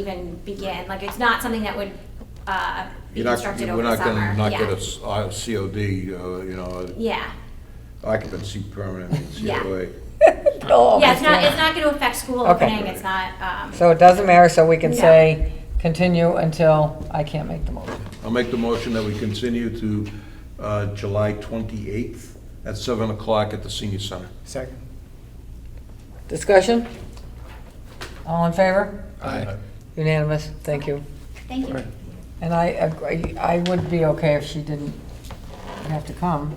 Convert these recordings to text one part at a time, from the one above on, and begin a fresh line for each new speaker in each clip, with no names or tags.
even begin. Like, it's not something that would uh, be
You're not,
constructed
we're
over the
not
summer.
gonna not
Yeah.
get a s- uh, COD, uh, you know,
Yeah,
occupancy permanent in
Yeah.
COA.
No.
yeah, it's not, it's not gonna affect school
Okay.
opening, it's not, um,
So it doesn't matter, so we can
No.
say, continue until I can't make the motion.
I'll make the motion that we continue to uh, July 28th at 7 o'clock at the senior center.
Second.
Discussion? All in favor?
Aye.
Unanimous, thank you.
thank you.
And I agree, I would be okay if she didn't have to come,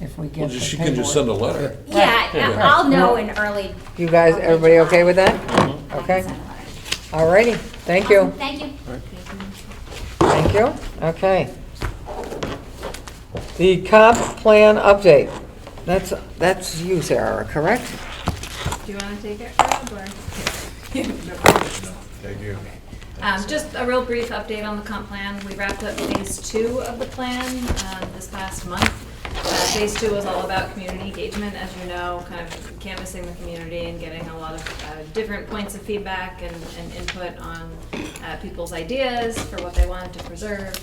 if we
Well,
get the
just- she can just send a
paperwork.
letter.
Yeah,
Yeah.
I'll know in early.
You guys,
early
everybody
July.
okay with that?
I can
Okay.
send a letter.
All righty, thank you,
Awesome, Mm-hmm. Thank you.
thank you, okay. The comp plan update, that's, that's you, Sarah, correct?
Do you want to take it, Rob, or?
Thank you.
Um, Just a real brief update on the comp plan. We wrapped up phase two of the plan um, this past month. Uh, Phase two was all about community engagement, as you know, kind of canvassing the community and getting a lot of uh, different points of feedback and and input on uh, people's ideas for what they wanted to preserve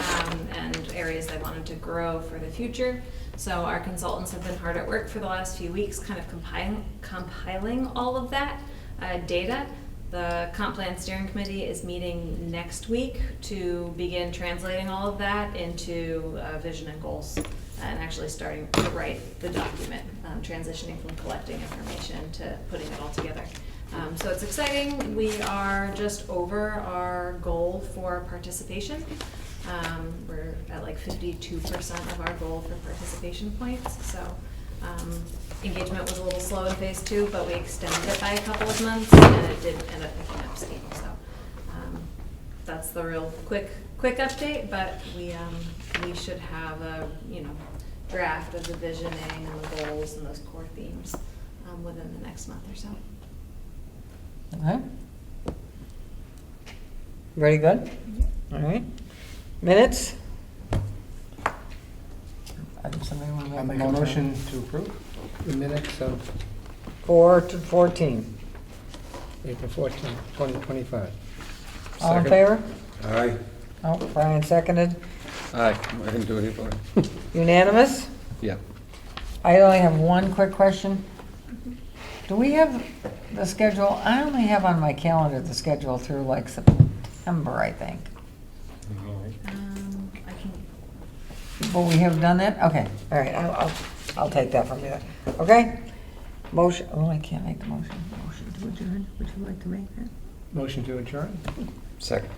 um, and areas they wanted to grow for the future. So our consultants have been hard at work for the last few weeks, kind of compiling, compiling all of that uh, data. The comp plan steering committee is meeting next week to begin translating all of that into uh, vision and goals and actually starting to write the document, um, transitioning from collecting information to putting it all together. Um, so it's exciting. We are just over our goal for participation. Um, we're at like fifty-two percent of our goal for participation points, so um, Engagement was a little slow in phase two, but we extended it by a couple of months, and it did end up picking up steam, so. um, That's the real quick, quick update, but we, um, we should have a, you know, draft of the visioning and the goals and those core themes um, within the next month or so.
Okay. Very good? All right. Minutes? I think somebody wanna
I
make
make a motion to approve the minutes of
Four to 14.
April fourteenth, 2025.
All in favor?
Aye.
Oh, Brian seconded.
Aye, I can do it either way.
Unanimous?
Yeah.
I only have one quick question. Do we have the schedule, I only have on my calendar the schedule through like September, I think.
Um, I can,
But we have done that? Okay, all right, I'll, I'll, I'll take that from you, okay? Motion, oh, I can't make the motion. Motion to adjourn, would you like to make that?
Motion to adjourn?
Second.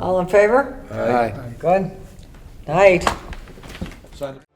All in favor?
Aye.
Aye.
Good. Night.
Sign it.